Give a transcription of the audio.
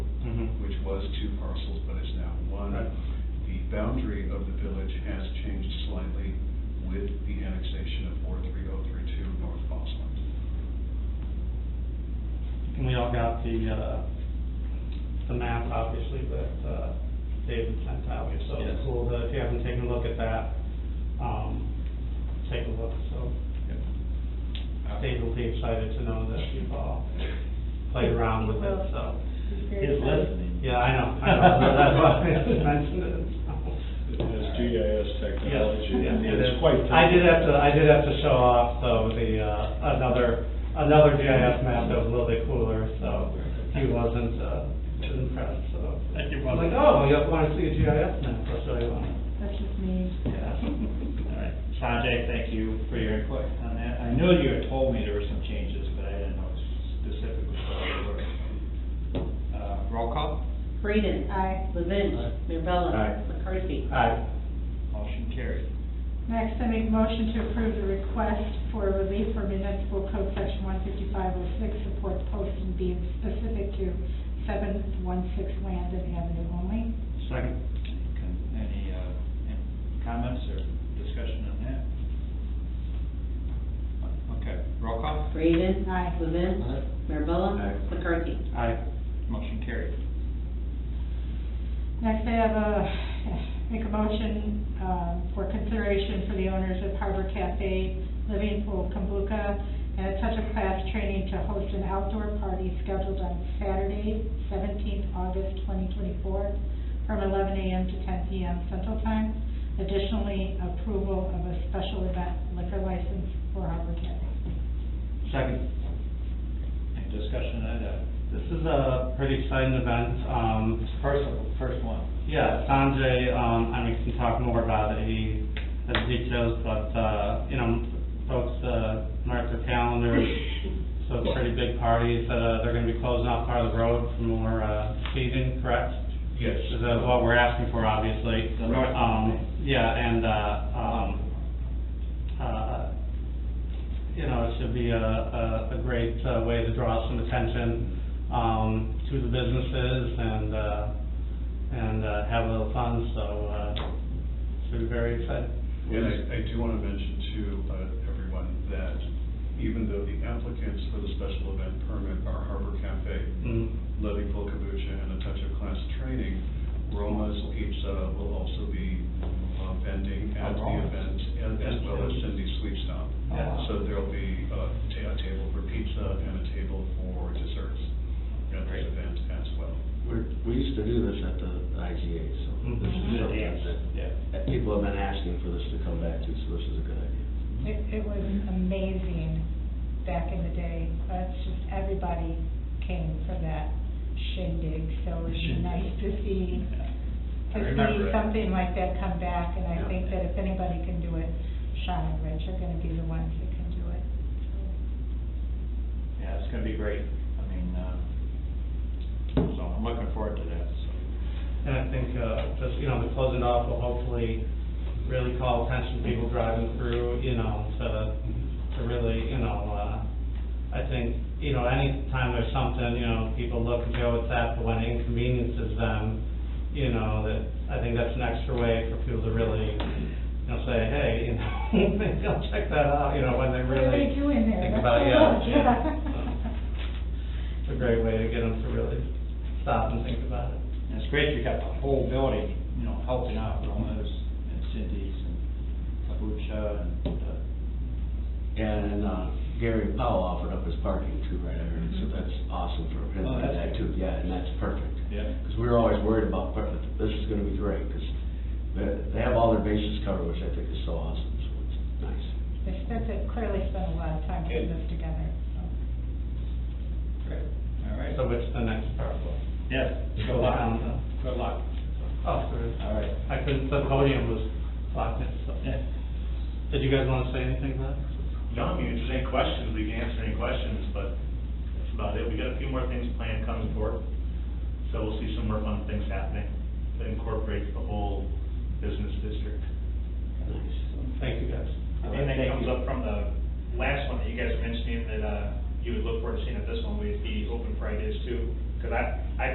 was two parcels, but it's now one. Mm-hmm. Right. The boundary of the village has changed slightly with the annexation of Ward 3032 North Bosland. And we all got the, uh, the map, obviously, that, uh, David sent out, so Yes. it's cool that if you haven't taken a look at that, um, take a look, so. David will be excited to know that you've all played around with it, so. His listening. Yeah, I know, I know, that's why I mentioned it. It so. has GIS technology, Yes, and yes, it it's is. quite. I did have to, I did have to show off, though, the, uh, another, another GIS map that was a little bit cooler, so he wasn't, uh, too impressed, so. Thank you. I was like, oh, you wanna see a GIS map, I'll show you one. That's just me. Yeah. All right, Sanjay, thank you for your input on that. I know you had told me there were some changes, but I didn't know specifically what they were. Uh, roll call, Breeden. Aye. Levin. Mirabella. Aye. McCarthy. Aye. motion carried. Next, I make motion to approve the request for relief for municipal code section one fifty-five oh six, supports posting being specific to seven one six Landon Avenue only. Second. Any, uh, any comments or discussion on that? Okay, roll call, Breeden. Aye. Levin. Aye. Mirabella. Aye. McCarthy. Aye. motion carried. Next, I have a, make a motion, um, for consideration for the owners of Harbor Cafe, Living Pool, Kambuka, and a touch of class training to host an outdoor party scheduled on Saturday, seventeenth August twenty twenty-four, from eleven AM to ten PM Central Time. Additionally, approval of a special event liquor license for Harbor Cafe. Second. Any discussion on that? This is a pretty exciting event, um, First, first one. Yeah, Sanjay, um, I mean, can talk more about it, he has details, but, uh, you know, folks, uh, mark their calendars. So it's a pretty big party, so uh, they're gonna be closing off part of the road for more, uh, seating, correct? Yes. Which is uh, what we're asking for, obviously. The north. Um, yeah, and, uh, um, uh, you know, it should be a, a, a great uh, way to draw some attention, um, to the businesses and, uh, and, uh, have a little fun, so, uh, should be very exciting. And I, I do want to mention to uh, everyone that even though the applicants for the special event permit are Harbor Cafe, Mm. Levy Full Kombucha, and a touch of class training, Roma's Pizza will also be uh, vending at the Roma's. event, and- as well as Cindy's Sweet Stop. Yeah. So there'll be uh, ta- a table for pizza and a table for desserts at this Great. event as well. We're, we used to do this at the IGA, so Mm-hmm. this is Mhm. something that, Yeah. that people have been asking for this to come back to, so this is a good idea. It, it was amazing back in the day. That's just, everybody came for that shindig, so it was Shindig. nice to see, I to remember see it. something like that come back. And I Yeah. think that if anybody can do it, Sean and Rich are gonna be the ones that can do it. Yeah, it's gonna be great. I mean, uh, so I'm looking forward to that, so. And I think, uh, just, you know, the closing off will hopefully really call attention to people driving through, you know, to, to really, you know, uh, I think, you know, anytime there's something, you know, people look and go, what's that, but when it inconveniences them, you know, that, I think that's an extra way for people to really, you know, say, hey, you know, maybe I'll check that out, you know, when they What are they really doing there? think Let's about, go yeah, look, yeah. It's a great way to get them to really stop and think about it. And it's great you got the whole building, you know, helping out Roma's and Cindy's and Kabucha and, uh, And, uh, Gary Powell offered up his parking too, right, I heard, so that's awesome for him Mm-hmm. Oh, to do that's that too, yeah, and that's perfect. Yeah. Because we were always worried about, par- but this is gonna be great, because they, they have all their bases covered, which I think is so awesome, so it's nice. They spent, it- clearly spent a lot of time putting this together, so. great, all right. So what's the next part? Yes, good luck, good luck. Oh, there is. All right. I couldn't, the podium was locked in, so. Yeah. Did you guys want to say anything about it? No, I mean, if there's any questions, we can answer any questions, but that's about it. We got a few more things planned coming forward, so we'll see some more fun things happening that incorporates the whole business district. Thank you, guys. And that comes up from the last one that you guys mentioned, that uh, you would look forward to seeing at this one, would be open Fridays too. Because I, I